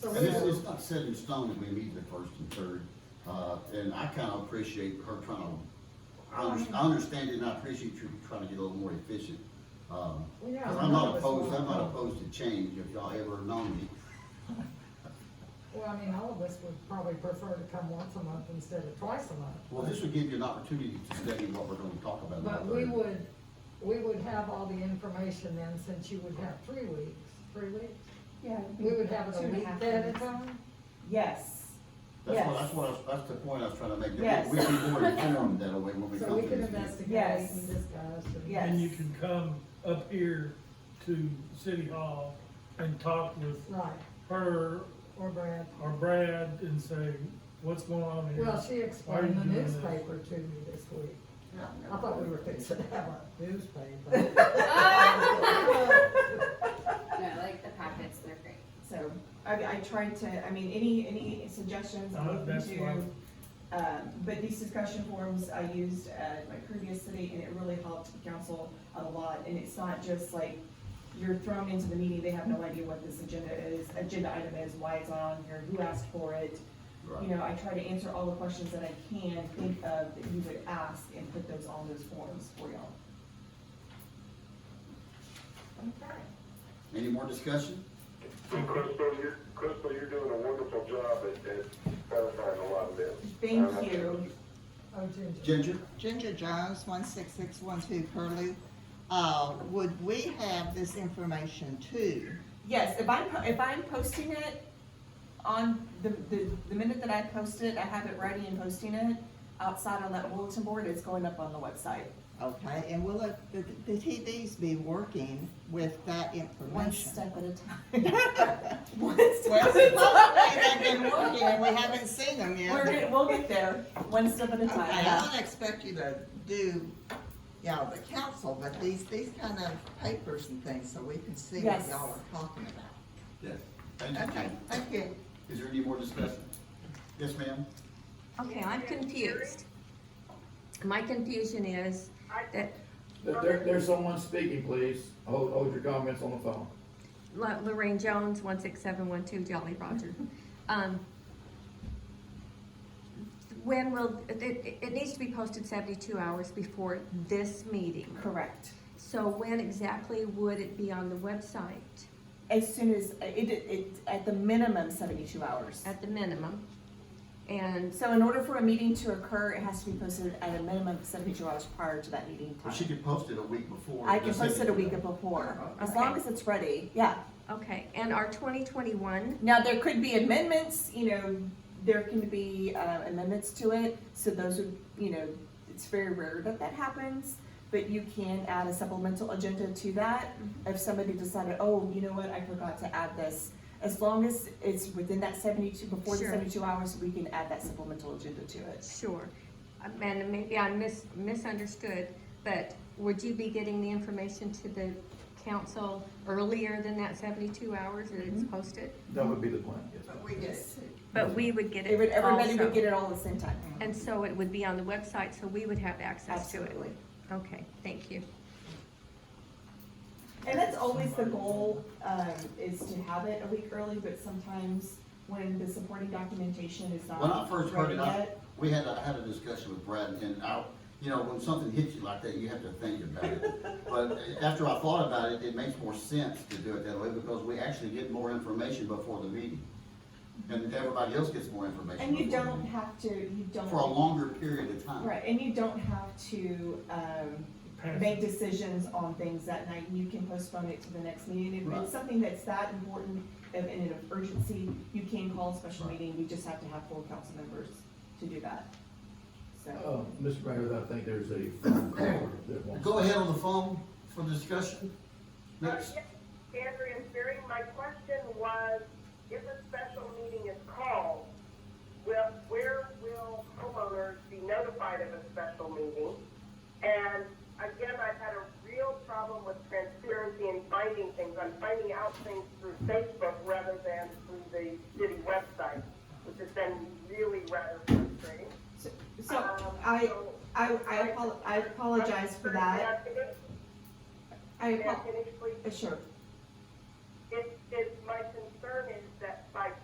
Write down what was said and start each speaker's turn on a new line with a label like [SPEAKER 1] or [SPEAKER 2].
[SPEAKER 1] So
[SPEAKER 2] And
[SPEAKER 1] we
[SPEAKER 2] it's,
[SPEAKER 1] will,
[SPEAKER 2] it's not set in stone that we meet the first and third, uh, and I kinda appreciate her trying to, I under- I understand it and I appreciate you trying to get a little more efficient. Um,
[SPEAKER 1] Well, yeah,
[SPEAKER 2] 'cause
[SPEAKER 1] none
[SPEAKER 2] I'm not
[SPEAKER 1] of us
[SPEAKER 2] opposed,
[SPEAKER 1] want-
[SPEAKER 2] I'm not opposed to change if y'all ever know me.
[SPEAKER 1] well, I mean, all of us would probably prefer to come once a month instead of twice a month.
[SPEAKER 2] Well, this would give you an opportunity to study what we're gonna talk about. on
[SPEAKER 1] But
[SPEAKER 2] the
[SPEAKER 1] we
[SPEAKER 2] third.
[SPEAKER 1] would, we would have all the information then, since you would have three weeks, three weeks?
[SPEAKER 3] Yeah.
[SPEAKER 1] We would have it
[SPEAKER 3] two
[SPEAKER 1] a
[SPEAKER 3] and
[SPEAKER 1] week
[SPEAKER 3] half
[SPEAKER 1] at a
[SPEAKER 3] minutes.
[SPEAKER 1] time?
[SPEAKER 3] Yes,
[SPEAKER 2] That's what,
[SPEAKER 3] yes.
[SPEAKER 2] that's what, I was- that's the point I was trying to make, that
[SPEAKER 3] Yes.
[SPEAKER 2] we- we'd be more informed that way when we
[SPEAKER 1] So
[SPEAKER 2] come
[SPEAKER 1] we
[SPEAKER 2] to
[SPEAKER 1] can
[SPEAKER 2] this meeting.
[SPEAKER 1] investigate
[SPEAKER 3] Yes.
[SPEAKER 1] and discuss and.
[SPEAKER 3] Yes.
[SPEAKER 4] And you can come up here to City Hall and talk with
[SPEAKER 1] Right,
[SPEAKER 4] her
[SPEAKER 1] or Brad.
[SPEAKER 4] or Brad and say, what's going on here?
[SPEAKER 1] Well, she
[SPEAKER 4] Why are you
[SPEAKER 1] explained the
[SPEAKER 4] doing this?
[SPEAKER 1] newspaper to me this week.
[SPEAKER 2] Yeah.
[SPEAKER 1] I thought we were fixing to have a newspaper.
[SPEAKER 5] No, like the packets, they're great.
[SPEAKER 3] so I, I tried to, I mean, any, any suggestions I'm
[SPEAKER 4] Uh,
[SPEAKER 3] open
[SPEAKER 4] that's
[SPEAKER 3] to.
[SPEAKER 4] fine.
[SPEAKER 3] Um, but these discussion forums I used at my previous city and it really helped the council a lot. And it's not just like you're thrown into the meeting, they have no idea what this agenda is, agenda item is, why it's on here, who asked for it.
[SPEAKER 2] Right.
[SPEAKER 3] You know, I try to answer all the questions that I can think of that you would ask and put those on those forums for y'all.
[SPEAKER 2] Any more discussion?
[SPEAKER 6] And Crystal, you're, Crystal, you're doing a wonderful job at, at clarifying a lot of Uh, this.
[SPEAKER 3] Thank you.
[SPEAKER 1] Oh, Ginger.
[SPEAKER 2] Ginger?
[SPEAKER 7] Ginger Jones, one six six one two Curlew. Uh, would we have this information too?
[SPEAKER 3] Yes, if I'm, po- if I'm posting it on the, the, the minute that I post it, I have it ready and posting it outside on that bulletin board, it's going up on the website.
[SPEAKER 7] Okay, and will it, the, the TVs be working with that
[SPEAKER 3] One
[SPEAKER 7] information?
[SPEAKER 3] step at a time. One step at a
[SPEAKER 7] Well,
[SPEAKER 3] time.
[SPEAKER 7] they've been working and we haven't seen them yet.
[SPEAKER 3] We're, gonna- we'll get there, one step at a
[SPEAKER 7] Okay,
[SPEAKER 3] time.
[SPEAKER 7] I don't expect you to do, you know, the council, but these, these kind of papers and things, so we can see what
[SPEAKER 3] Yes.
[SPEAKER 7] y'all are talking about.
[SPEAKER 2] Yes. Thank you,
[SPEAKER 7] Okay,
[SPEAKER 2] Ginger.
[SPEAKER 7] thank you.
[SPEAKER 2] Is there any more discussion? Yes, ma'am?
[SPEAKER 8] Okay, I'm confused. My confusion is that
[SPEAKER 9] There- There, there's someone speaking, please. Hold, hold your comments on the phone.
[SPEAKER 8] La- Lorraine Jones, one six seven one two Jolly Roger. Um, When will, it, it, it needs to be posted seventy-two hours before this meeting.
[SPEAKER 3] Correct.
[SPEAKER 8] So when exactly would it be on the website
[SPEAKER 3] As soon as, it, it, at the minimum seventy-two hours.
[SPEAKER 8] at the minimum? And
[SPEAKER 3] So in order for a meeting to occur, it has to be posted at a minimum of seventy-two hours prior to that meeting
[SPEAKER 2] Well, she
[SPEAKER 3] time.
[SPEAKER 2] could post it a week before.
[SPEAKER 3] I can
[SPEAKER 2] the
[SPEAKER 3] post it a
[SPEAKER 2] second.
[SPEAKER 3] week before, as
[SPEAKER 8] Okay.
[SPEAKER 3] long as it's ready, yeah.
[SPEAKER 8] Okay, and our twenty twenty-one,
[SPEAKER 3] Now, there could be amendments, you know, there can be uh, amendments to it, so those would, you know, it's very rare that that happens, but you can add a supplemental agenda to that if somebody decided, oh, you know what, I forgot to add this. As long as it's within that seventy-two, before the
[SPEAKER 8] Sure.
[SPEAKER 3] seventy-two hours, we can add that supplemental agenda to it.
[SPEAKER 8] sure. Um, And maybe I mis- misunderstood, but would you be getting the information to the council earlier than that seventy-two hours that it's posted?
[SPEAKER 9] That would be the plan, yes. ma'am.
[SPEAKER 7] we get it.
[SPEAKER 8] Mm-hmm. But we would get
[SPEAKER 3] They would-
[SPEAKER 8] it
[SPEAKER 3] Everybody would get
[SPEAKER 8] also.
[SPEAKER 3] it all at the same time.
[SPEAKER 8] And so it would be on the website, so we would have access to it.
[SPEAKER 3] Absolutely.
[SPEAKER 8] Okay, thank you.
[SPEAKER 3] And that's always the goal, um, is to have it a week early, but sometimes when the supporting documentation is
[SPEAKER 2] When I
[SPEAKER 3] not
[SPEAKER 2] first heard
[SPEAKER 3] ready
[SPEAKER 2] it, I,
[SPEAKER 3] yet.
[SPEAKER 2] we had, I had a discussion with Brad and I, you know, when something hits you like that, you have to think about it. But after I thought about it, it makes more sense to do it that way because we actually get more information before the meeting. And everybody else gets more information.
[SPEAKER 3] And you
[SPEAKER 2] before the
[SPEAKER 3] don't
[SPEAKER 2] meeting.
[SPEAKER 3] have to, you don't.
[SPEAKER 2] For a longer period of time.
[SPEAKER 3] Right, and you don't have to, um,
[SPEAKER 4] Pass.
[SPEAKER 3] make decisions on things that night, you can postpone it to the next meeting. If
[SPEAKER 2] Right.
[SPEAKER 3] it's something that's that important of, and of urgency, you can call a special
[SPEAKER 2] Right.
[SPEAKER 3] meeting, you just have to have full council members to do that. So,
[SPEAKER 9] Uh, Mr. Mayor, I think there's a phone call that wants.
[SPEAKER 2] Go ahead on the phone for discussion.
[SPEAKER 10] Uh,
[SPEAKER 2] Next.
[SPEAKER 10] yes, Andrea and Sherry, my question was, if a special meeting is called, will, where will homeowners be notified of a special meeting? And again, I've had a real problem with transparency and finding things. I'm finding out things through Facebook rather than through the city website, which has been really rather frustrating.
[SPEAKER 3] so- so
[SPEAKER 10] Um,
[SPEAKER 3] I,
[SPEAKER 10] so-
[SPEAKER 3] I, I apo- I apologize for that.
[SPEAKER 10] Can I finish?
[SPEAKER 3] I,
[SPEAKER 10] Can I
[SPEAKER 3] apo-
[SPEAKER 10] finish, please?
[SPEAKER 3] uh, sure.
[SPEAKER 10] It, it, my concern is that by